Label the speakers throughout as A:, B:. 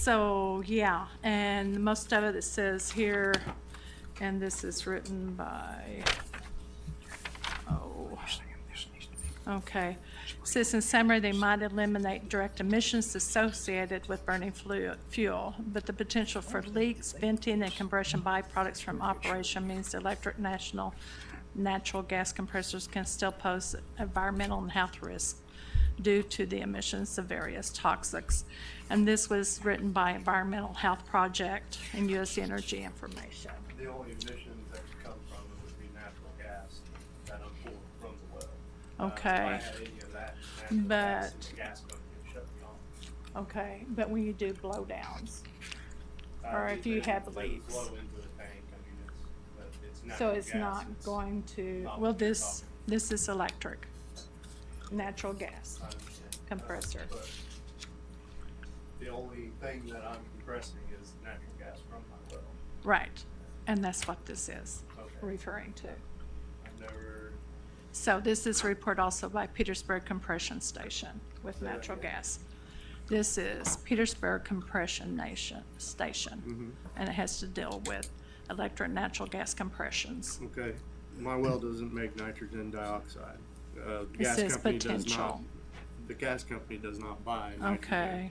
A: So, yeah, and most of it says here, and this is written by, oh. Okay. Citizen summary, they might eliminate direct emissions associated with burning flu- fuel, but the potential for leaks, venting, and compression byproducts from operation means electric national natural gas compressors can still pose environmental and health risks due to the emissions of various toxics. And this was written by Environmental Health Project and U.S. Energy Information.
B: The only emissions that could come from it would be natural gas that I'm pulling from the well. Uh, if I
A: Okay.
B: had any of that natural gas, then the
A: But-
B: gas company would shut me off.
A: Okay, but when you do blowdowns,
B: Uh,
A: Or if
B: they-
A: you have
B: they would
A: leaks.
B: Flow into the tank, I mean, it's, but it's natural
A: so
B: gas.
A: it's not going to,
B: not
A: well,
B: what you're
A: this,
B: talking
A: this is electric, natural gas.
B: I understand. Uh,
A: compressor.
B: but The only thing that I'm compressing is natural gas from my well.
A: Right, and that's what this is referring to.
B: I've never,
A: So this is a report also by Petersburg Compression Station with
B: Say that
A: natural
B: again.
A: gas. This is Petersburg Compression Nation, Station,
B: Mm-hmm.
A: and it has to deal with electric natural gas
B: Mm-hmm.
A: compressions.
C: Okay, my well doesn't make nitrogen dioxide. Uh, the
A: It says
C: gas company does not,
A: potential.
C: the gas company does not buy nitrogen.
A: Okay,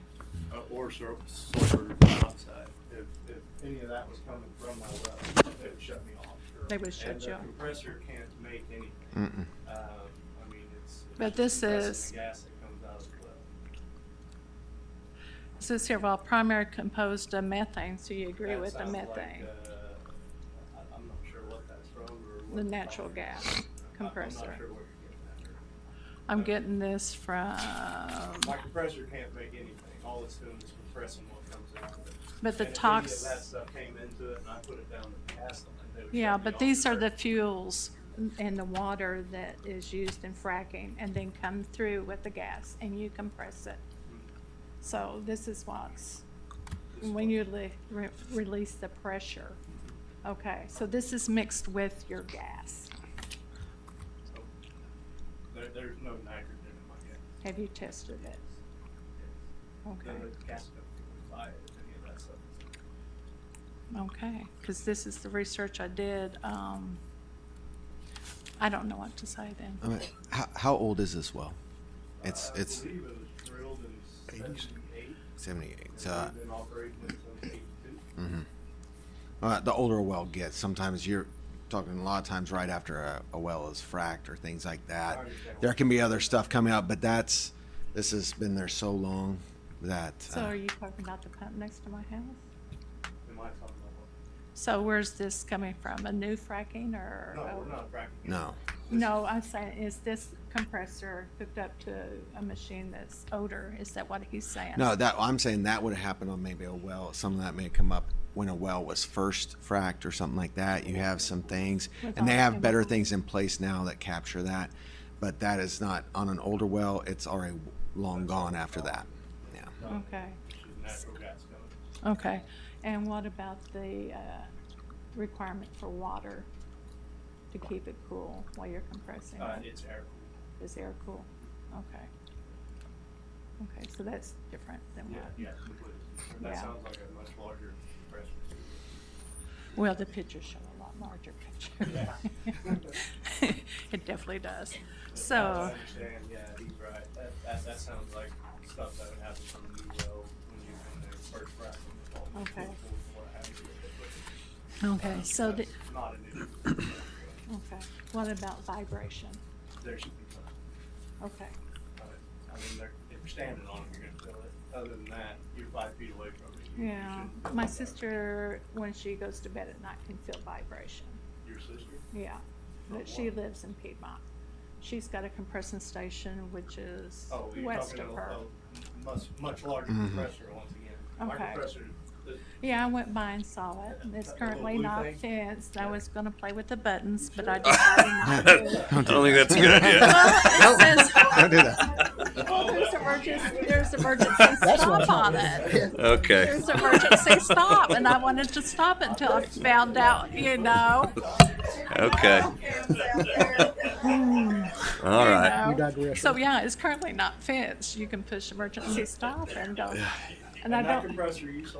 C: uh, Or sur- sulfur dioxide.
B: if, if any of that was coming from my well, they would shut me off.
A: They would shut you off.
B: And the compressor can't make anything. Um, I mean, it's. it's
A: But this
B: compressing
A: is-
B: The gas that comes out of the well.
A: It says here, while primary composed of methane, so you agree
B: That
A: with the
B: sounds like,
A: methane?
B: uh, I, I'm not sure what that's from or what.
A: The natural
B: I-
A: gas
B: I'm
A: compressor.
B: not sure where you're getting
A: I'm getting um, this from,
B: that. My compressor can't make anything. All it's doing is compressing what comes out of it.
A: But the
B: And if any of
A: tox-
B: That stuff came into it and I put it down the gas line. they would
A: yeah,
B: shut me
A: but
B: off
A: these are the
B: first.
A: fuels and the water that is used in fracking and then come through with the gas and you compress it.
B: Mm-hmm.
A: So this is what's,
B: This
A: when
B: one.
A: you le- re- release the pressure. Okay, so this is mixed with your gas.
B: So, There, there's no nitrogen in my gas.
A: Have you tested it?
B: None
A: Okay.
B: of the gas company would buy it if any of that stuff is in it.
A: Okay, because this is the research I did. Um, I don't know what to say then.
D: I mean, how, how old is this well? It's
B: Uh,
D: it's
B: I believe it was drilled in
D: Eighties.
B: seventy-eight.
D: 78.
B: and
D: So uh, mm-hmm.
B: we've been operating it since eighty-two.
D: uh, the older a well gets, sometimes you're talking a lot of times right after a, a well is fracked or things like that. There can be other stuff coming out, but that's this has been there so long that
A: So
D: uh,
A: are you talking about the pump next to my house?
B: Am I talking about?
A: So where's this coming from? A new fracking or?
B: No, we're not fracking. it.
D: no.
A: No, I'm saying, is this compressor hooked up to a machine that's older? Is that what he's saying?
D: No, that I'm saying that would have happened on maybe a well. Some of that may come up when a well was first fracked or something like that. You have some things,
A: With
D: and they
A: all the
D: have better
A: chemicals.
D: things in place now that capture that. But that is not on an older well. It's already long gone after that. Yeah.
A: Okay,
B: It's just natural gas coming.
A: okay. And what about the, uh, requirement for water to keep it cool while you're compressing
B: Uh,
A: it?
B: it's air cooled.
A: Is air cool? Okay. Okay, so that's different than
B: Yeah,
A: what,
B: yeah, completely. That
A: Yeah.
B: sounds like a much larger compressor.
A: well, the pictures show a lot larger picture.
B: Yeah.
A: It definitely does.
B: But as I
A: So,
B: understand, yeah, he's right. That, that, that sounds like stuff that would happen from the new well when you, when they first frack them. with all the
A: Okay.
B: fuel, what have you, but-
A: okay,
B: Um,
A: so, the-
B: that's Not an issue.
A: okay, what about vibration?
B: There should be some.
A: Okay,
B: uh, I mean, they're, if you're standing on it, you're gonna feel it. Other than that, you're five feet away from it. You- you
A: yeah,
B: shouldn't feel
A: my
B: it.
A: sister, when she goes to bed at night, can feel vibration,
B: Your sister?
A: yeah. But she lives in Piedmont. She's got a compression station which is
B: Oh, you're
A: west
B: talking
A: of
B: a,
A: her.
B: a much, much larger
D: Mm-hmm.
B: compressor once again. My
A: Okay.
B: compressor, the-
A: Yeah, I went by and saw it, and it's
B: That little
A: currently
B: blue
A: not
B: thing?
A: fenced. I
B: Yeah.
A: was gonna play with the buttons, but I decided not to.
D: Don't
E: I don't think that's a good idea.
A: Well, it says-
D: Don't do that.
A: There's emergency, there's emergency stop on it.
E: Okay.
A: There's emergency stop, and I wanted to stop it until I found out, you know.
E: Okay. All
A: you
E: right.
A: know. So yeah, it's currently not fenced. You can push emergency stop and go. And I
B: that
A: don't-
B: compressor you saw